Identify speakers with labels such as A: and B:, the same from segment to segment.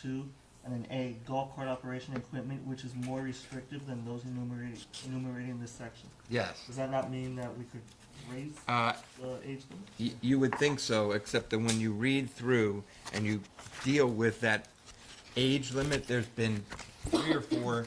A: two, and then A, golf cart operation equipment, which is more restrictive than those enumerated, enumerated in this section.
B: Yes.
A: Does that not mean that we could raise
B: Uh,
A: the age limit?
B: y- You would think so, except that when you read through and you deal with that age limit, there's been three or four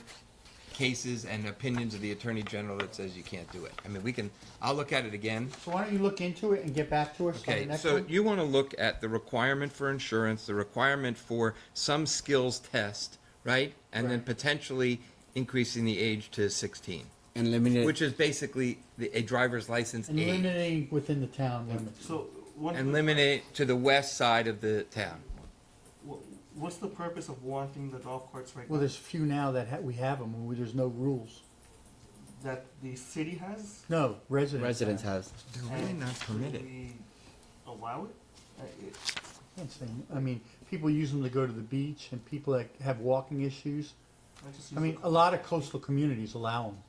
B: cases and opinions of the Attorney General that says you can't do it. I mean, we can, I'll look at it again.
C: So why don't you look into it and get back to us on the
B: Okay,
C: next
B: so
C: one?
B: you want to look at the requirement for insurance, the requirement for some skills test, right? And then
C: Right.
B: potentially increasing the age to 16,
D: And eliminate.
B: which is basically the- a driver's license
C: And
B: age.
C: limiting within the town limits.
A: So, what?
B: And limit it to the west side of the town.
A: wha- What's the purpose of warranting the golf carts right
C: Well,
A: now?
C: there's few now that ha- we have them, where there's no rules.
A: That the city has?
C: No, residents.
D: Residence has.
B: Do
A: and should we Allow it? Uh, it?
C: That's the thing. I mean, people use them to go to the beach and people that have walking issues.
A: I just
C: I
A: use
C: mean,
A: the-
C: a lot of coastal communities allow them.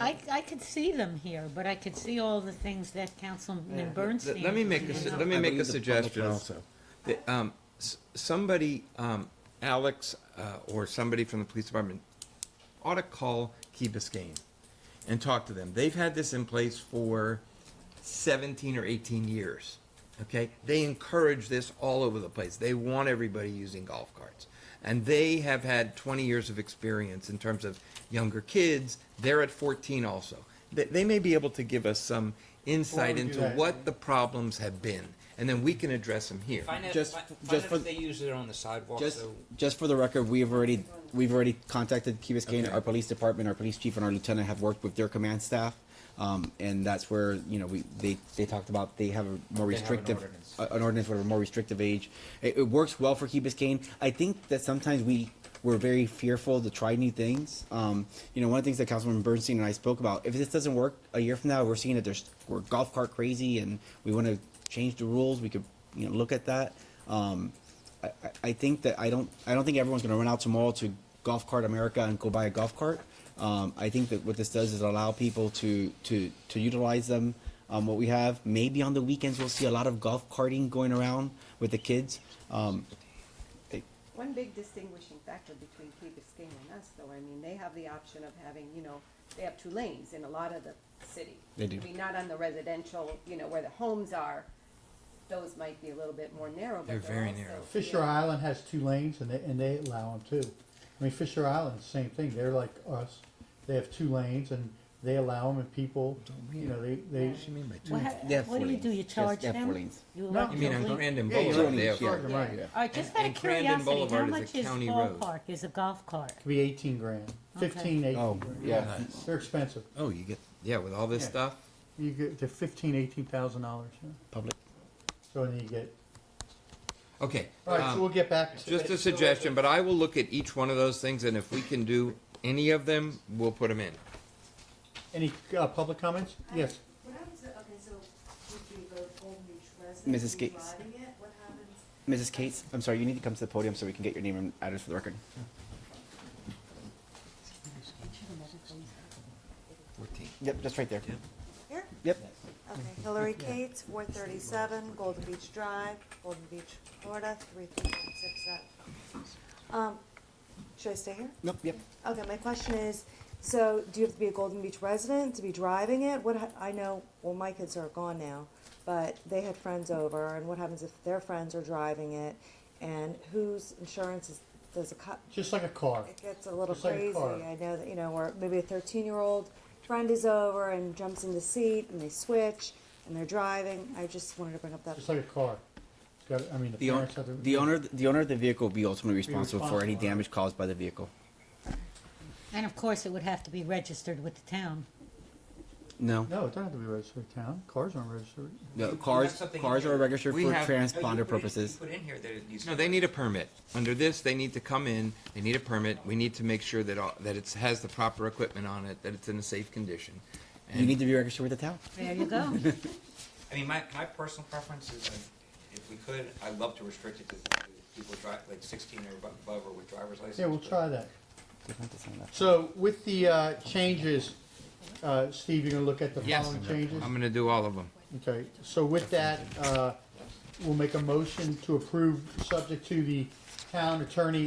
E: I, I could see them here, but I could see all the things that Councilman Bernstein.
B: Let me make a, su- let me
D: I
B: make a
D: believe the public
B: suggestion
D: will.
B: also. That, um, s- somebody, um, Alex, uh, or somebody from the police department ought to call Key Biscayne and talk to them. They've had this in place for seventeen or eighteen years, okay? They encourage this all over the place. They want everybody using golf carts. And they have had twenty years of experience in terms of younger kids. They're at fourteen also. They, they may be able to give us some insight
C: do
B: into
C: that.
B: what the problems have been, and then we can address them here.
F: Find out,
D: Just-
F: fi- find
D: just
F: out
D: for-
F: if they use it on the sidewalk.
D: Just,
F: so
D: just for the record, we have already, we've already contacted Key Biscayne,
B: Okay.
D: our police department, our police chief, and our lieutenant have worked with their command staff. Um, and that's where you know we they, they talked about they have a more
F: They have an
D: restrictive
F: ordinance.
D: a- an ordinance with a more restrictive age. It, it works well for Key Biscayne. I think that sometimes we we're very fearful to try new things. Um, you know, one of the things that Councilman Bernstein and I spoke about. If this doesn't work a year from now, we're seeing that there's we're golf cart crazy, and we want to change the rules. We could you know look at that. Um, I, I- I think that I don't I don't think everyone's going to run out tomorrow to Golf Cart America and go buy a golf cart. Um, I think that what this does is allow people to to to utilize them. Um, what we have maybe on the weekends we'll see a lot of golf carting going around with the kids. Um,
G: One big distinguishing factor between Key Biscayne and us, though, I mean, they have the option of having, you know, they have two lanes in a lot of the city.
D: They do.
G: I mean, not on the residential, you know, where the homes are, those might be a little bit more narrow, but
B: They're
G: they're
B: very
G: also-
B: narrow.
C: Fisher Island has two lanes and they, and they allow them too. I mean, Fisher Island, same thing. They're like us. They have two lanes and they allow them and people, you know, they, they.
B: What do you mean by two?
E: What,
D: They have
E: what do
D: four
E: you do? You
D: lanes. Yes,
E: charge
D: they have four
E: them?
D: lanes.
E: You
C: No.
E: elect
B: You mean
E: your
B: on
E: lane?
B: Grandin
C: Yeah, you're
B: Boulevard?
C: right.
B: they have-
C: You're right, yeah.
E: All right, just
B: And-
E: out of
B: and Crandon
E: curiosity, how
B: Boulevard is a
E: much is
B: county road.
E: ballpark, is a golf cart?
C: Could be eighteen grand, fifteen, eighteen.
D: Oh,
C: grand.
D: yeah.
B: Nice.
C: They're expensive.
B: Oh, you get, yeah, with all this
C: Yeah.
B: stuff?
C: You get to fifteen, eighteen thousand dollars. yeah.
D: public.
C: So then you get,
B: Okay.
C: all right,
B: um,
C: so we'll get back to.
B: Just a suggestion, but I will look at each one of those things, and if we can do any of them, we'll put them in.
C: Any, uh, public comments? Yes.
H: What happens, to- okay, so would we vote all new residents
D: Mrs.
H: who's
D: Gates.
H: riding it? What happens?
D: Mrs. Cates, I'm sorry, you need to come to the podium so we can get your name and address for the record.
B: Fourteen.
D: Yep, just right there.
H: Here?
D: Yep.
H: Okay, Hillary Cates, four thirty-seven, Golden Beach Drive, Golden Beach, Florida, three three one six seven. Um, should I stay here?
D: Nope. Yep.
H: Okay, my question is, so do you have to be a Golden Beach resident to be driving it? What, ha- I know, well, my kids are gone now, but they had friends over, and what happens if their friends are driving it? And whose insurance is, does a cop,
C: Just like a car.
H: it gets a little
C: Just like a
H: crazy.
C: car.
H: I know that, you know, or maybe a 13 year old friend is over and jumps in the seat and they switch and they're driving. I just wanted to bring up that.
C: Just like a car. It's got, I mean, the
D: The, own
C: parents have to.
D: the owner the owner of the vehicle will be ultimately responsible for any
C: responsible.
D: damage caused by the vehicle.
E: And of course, it would have to be registered with the town.
D: No.
C: No, it doesn't have to be registered in town. Cars aren't registered.
D: No,
F: You- you have
D: Uh, cars
F: something in
D: cars
F: here.
D: are registered
B: We
D: for
B: have-
F: No, you put
D: transponder
F: in-
D: purposes.
F: you put in here that it needs-
B: No, they need a permit. Under this, they need to come in, they need a permit, we need to make sure that, all- that it has the proper equipment on it, that it's in a safe condition.
D: You need to be registered with the town.
E: There you go.
F: I mean, my, my personal preference is, like, if we could, I'd love to restrict it to to people drive, like sixteen or abo- above or with driver's license.
C: Yeah, we'll
F: but-
C: try that.
D: Different design, that's-
C: So with the uh, changes, uh, Steve, you're gonna look at the
B: Yes, Um,
C: following changes?
B: I'm gonna do all of them.
C: Okay, so with that, uh, we'll make a motion to approve, subject to the town attorney